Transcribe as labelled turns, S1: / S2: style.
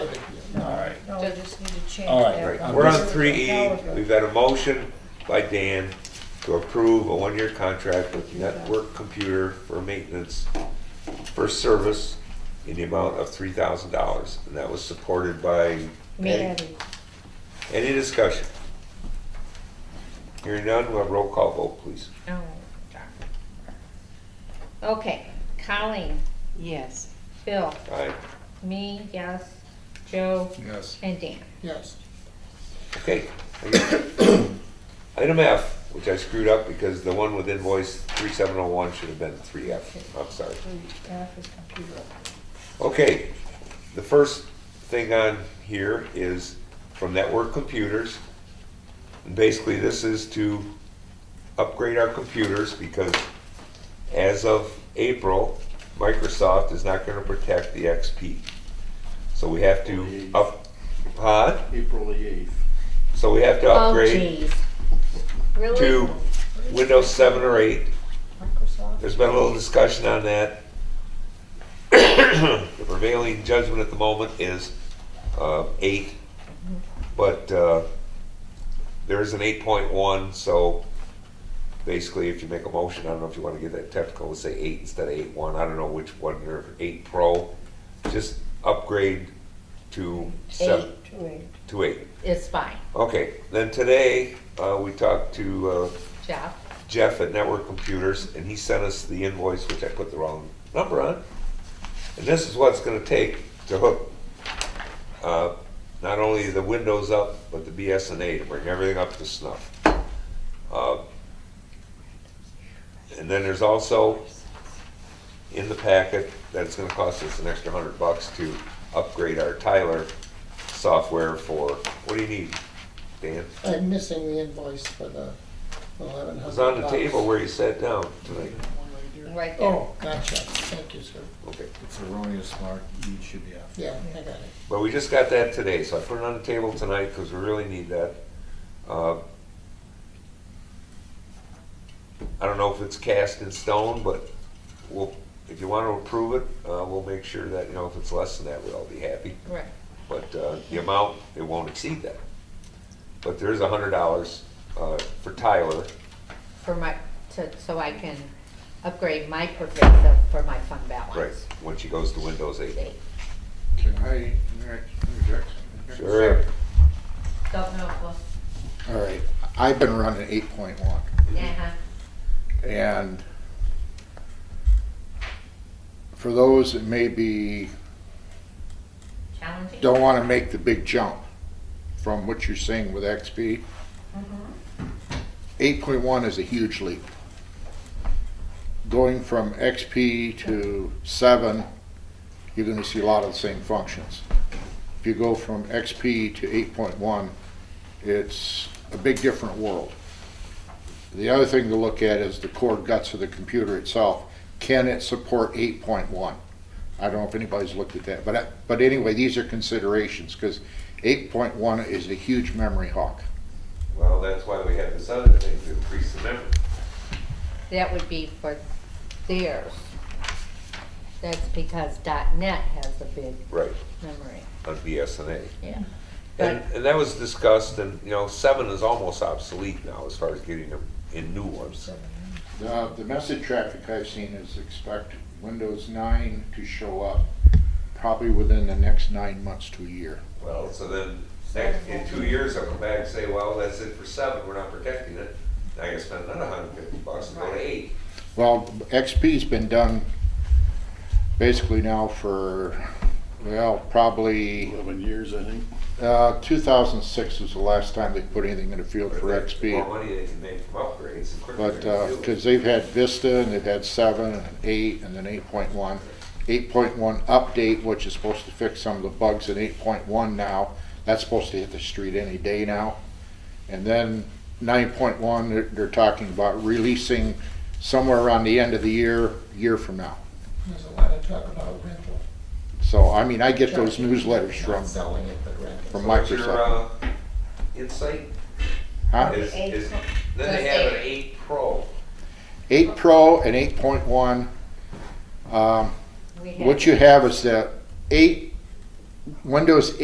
S1: Oh, just need to change
S2: All right,
S1: that.
S2: right.
S1: one.
S3: We're on
S1: This is
S3: three
S1: an
S3: E,
S1: hour ago.
S3: we've had a motion by Dan to approve a one-year contract with Network Computer for maintenance for service in the amount of three thousand dollars, and that was supported by Patty.
S1: Maddie,
S3: Any discussion? Hearing none, we'll have roll call vote, please.
S1: no. Okay, Colleen,
S4: Yes.
S1: Bill,
S3: Aye.
S1: me, yes, Joe,
S5: Yes.
S1: and Dan.
S5: Yes.
S3: Okay. Item F, which I screwed up because the one with invoice three seven oh one should have been three F. I'm sorry.
S1: Oh, F is computer.
S3: Okay, the first thing on here is from Network Computers. And Basically, this is to upgrade our computers because as of April, Microsoft is not gonna protect the XP. So we have to up, huh?
S6: April the eighth.
S3: So we have to
S1: Oh,
S3: upgrade
S1: jeez. Really?
S3: to Windows seven or eight.
S1: Microsoft?
S3: There's been a little discussion on that. The prevailing judgment at the moment is uh, eight, but uh, there is an eight point one, so basically, if you make a motion, I don't know if you want to get that technical, let's say eight instead of eight one, I don't know which one, or eight pro, just upgrade to seven,
S1: Eight, wait,
S3: to eight.
S1: it's fine,
S3: Okay, then today, uh, we talked to uh,
S1: Jeff.
S3: Jeff at Network Computers, and he sent us the invoice, which I put the wrong number on. And this is what it's gonna take to hook, uh, not only the windows up, but the BSNA to bring everything up to snuff. Uh, And then there's also in the packet that it's gonna cost us an extra hundred bucks to upgrade our Tyler software for, what do you need, Dan?
S5: I'm missing the invoice for the eleven hundred.
S3: It was on the table where you sat down tonight.
S1: Right there.
S5: Oh, gotcha. Thank you, sir.
S3: Okay.
S6: It's erroneous, Mark. You should be after.
S5: Yeah, I got it.
S3: But we just got that today, so I put it on the table tonight because we really need that. Uh, I don't know if it's cast in stone, but we'll, if you want to approve it, uh, we'll make sure that, you know, if it's less than that, we'll all be happy.
S1: Right.
S3: But uh, the amount, it won't exceed that. But there is a hundred dollars uh, for Tyler.
S1: For my, to, so I can upgrade my pervasive for my fund balance.
S3: When she goes to Windows eight.
S1: Eight.
S6: Can I interject? interject something here?
S3: Sure.
S1: Don't know, well,
S6: All right, I've been running eight point one
S1: uh-huh.
S6: and for those that maybe
S1: Challenging.
S6: don't want to make the big jump from what you're saying with XP, eight point one is a huge leap. Going from XP to seven, you're gonna see a lot of the same functions. If you go from XP to eight point one, it's a big different world. The other thing to look at is the core guts of the computer itself. Can it support eight point one? I don't know if anybody's looked at that, but, I- but anyway, these are considerations, because eight point one is a huge memory hog.
S3: Well, that's why we have this other thing to increase the memory.
S1: That would be for theirs. That's because dot net has a big
S3: Right,
S1: memory,
S3: on BSNA.
S1: yeah.
S3: And,
S1: But,
S3: and that was discussed, and, you know, seven is almost obsolete now as far as getting them in new ones.
S6: The, the message traffic I've seen is expect Windows nine to show up probably within the next nine months to a year.
S3: Well, so then, next, in two years, I'll come back and say, well, that's it for seven, we're not protecting it. Now I gotta spend another hundred fifty bucks and go to eight.
S6: Well, XP's been done basically now for, well, probably,
S7: Eleven years, I think.
S6: uh, two thousand six was the last time they put anything in the field for
S3: The
S6: XP.
S3: More money they can make from upgrades, the quicker
S6: But,
S3: they're
S6: uh
S3: gonna do
S6: cause
S3: it.
S6: they've had Vista and they've had seven and eight and then eight point one. Eight point one update, which is supposed to fix some of the bugs in eight point one now, that's supposed to hit the street any day now. And then nine point one, they're, they're talking about releasing somewhere around the end of the year, year from now.
S5: There's a lot of talk about rental.
S6: So, I mean, I get those newsletters
S5: Not
S6: from,
S5: selling it, but rental.
S6: from
S3: So what's your,
S6: Microsoft.
S3: uh, Insight
S6: Huh?
S3: is, is,
S1: Eight.
S3: then they have an eight pro.
S6: Eight Pro and eight point one, um,
S1: we had-
S6: what you have is that eight, Windows